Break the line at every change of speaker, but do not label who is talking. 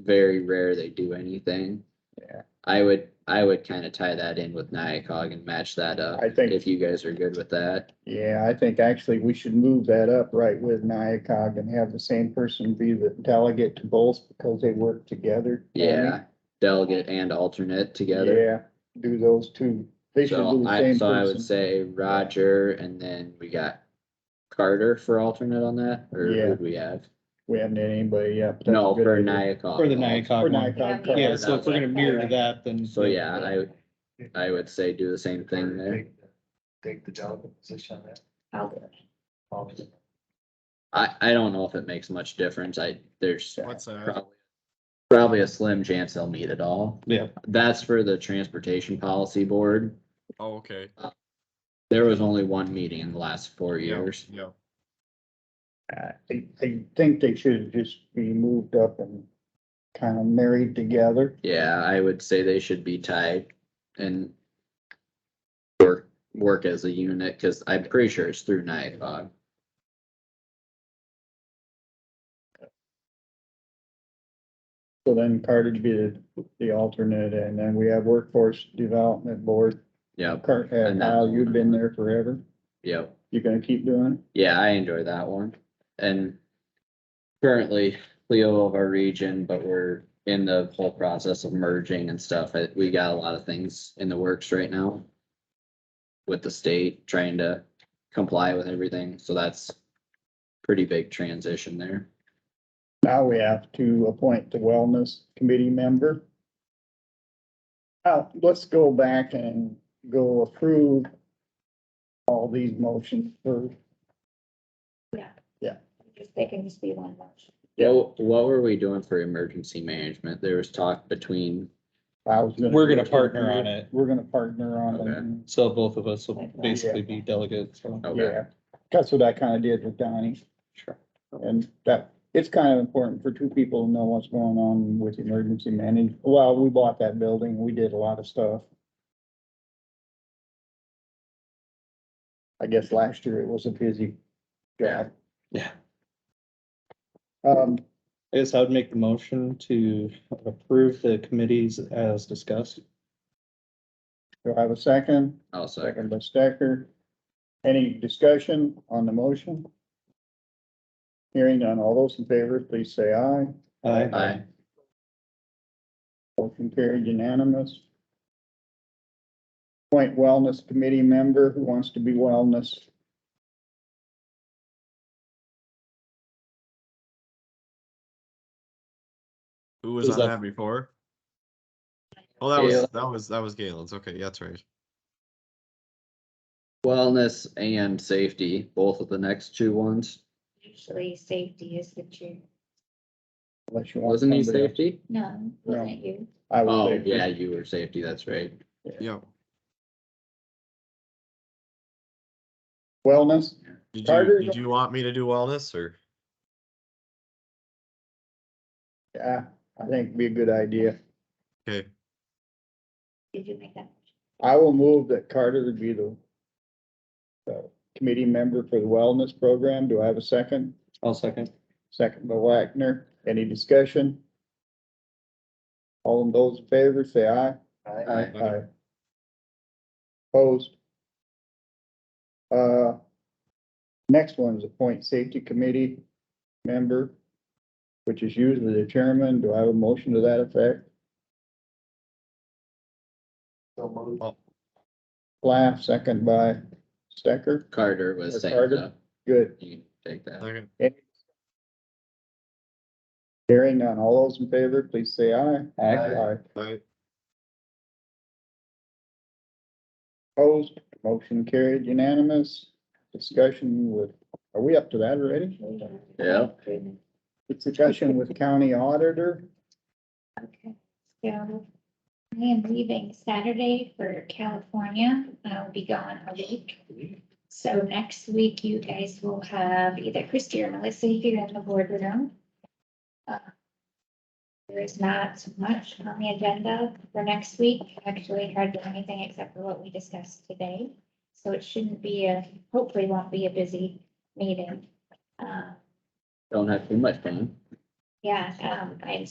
very rare they do anything.
Yeah.
I would, I would kind of tie that in with Nyakog and match that up.
I think-
If you guys are good with that.
Yeah, I think actually we should move that up right with NIACOG and have the same person be the delegate to both because they work together.
Yeah, delegate and alternate together.
Yeah, do those two. They should
So
do the
I,
same
so I would
person.
say Roger and then we got Carter for alternate on that, or
Yeah.
who'd we have?
We haven't had anybody yet. but that's
No,
a good
for
idea.
Nyakog.
For the
For
Nyakog one.
NIACOG.
Yeah, so if we're gonna mirror
Yeah.
to that, then.
So yeah, I, would- I would say do the same thing there.
Take the delegate position on that.
I'll
Always.
I, I don't know if it makes much difference. I, there's
What's that?
probably, probably a slim chance they'll meet at all.
Yeah.
That's for the Transportation Policy Board.
Oh, okay.
There was only one meeting in the last four
Yeah,
years.
Yeah,
I, I think they should just be moved up and kind of married together.
Yeah, I would say they should be tied and work, work as a unit, cause I'm pretty sure it's through NIACOG.
So then Carter would be the, the alternate and then we have Workforce Development Board.
Yep,
Cart, uh,
And that-
Kyle, you've been there forever.
yep.
You're gonna keep doing it?
Yeah, I enjoy that one. And currently Leo of our region, but we're in the whole process of merging and stuff. I- We got a lot of things in the works right now with the state trying to comply with everything. So that's pretty big transition there.
Now we have to appoint the wellness committee member. Uh, let's go back and go approve all these motions for,
just, they can just be one motion.
Yeah, wh- what were we doing for emergency management? There was talk between,
I was
We're gonna partner on it.
We're gonna partner on it.
So both of us will basically be delegates, so.
okay,
Yeah, that's what I kind of did with Donnie.
Sure.
And that, it's kind of important for two people to know what's going on with emergency manage, well, we bought that building, we did a lot of stuff. I guess last year it was a busy job.
Yeah.
Um,
I guess I would make the motion to approve the committees as discussed.
do I have a second?
also,
Second by Stecker. Any discussion on the motion? Hearing none, all those in favor, please say aye.
Aye.
I,
Motion carried unanimous. Appoint wellness committee member who wants to be wellness.
who was
Who's
on
that?
that before? Oh, that was,
Galen.
that was, that was Galen's, okay, yeah, that's right.
wellness and safety, both of the next two ones.
Usually safety is the chair.
Unless you want
Wasn't he
somebody else.
safety?
No, wasn't you?
I
Oh,
would
yeah,
say,
you were safety, that's right.
Yeah.
wellness,
Did
Carter,
you, did you want me to do wellness or?
yeah, I think would be a good idea.
Okay,
Did you make that?
I will move that Carter would be the the committee member for the wellness program. Do I have a second?
I'll second.
Second by Wagner. Any discussion? All of those in favor, say aye.
Aye.
Aye. Opposed? Uh, next one is appoint safety committee member, which is usually the chairman. Do I have a motion to that effect?
So moved.
Laugh, second by Stecker.
Carter was
Or
saying
Carter.
so
Good.
You can take that.
second,
Hearing none. All those in favor, please say aye. Aye.
I,
Opposed? Motion carried unanimous. Discussion with, are we up to that already?
Yeah.
Discussion with county auditor.
Okay, so I am leaving Saturday for California. I'll be gone a week. So next week you guys will have either Christie or Melissa here in the boardroom. Uh, There is not so much on the agenda for next week. Actually, hardly anything except for what we discussed today. So it shouldn't be a, hopefully won't be a busy meeting. Uh,
Don't have too much fun.
Yeah, um, I'm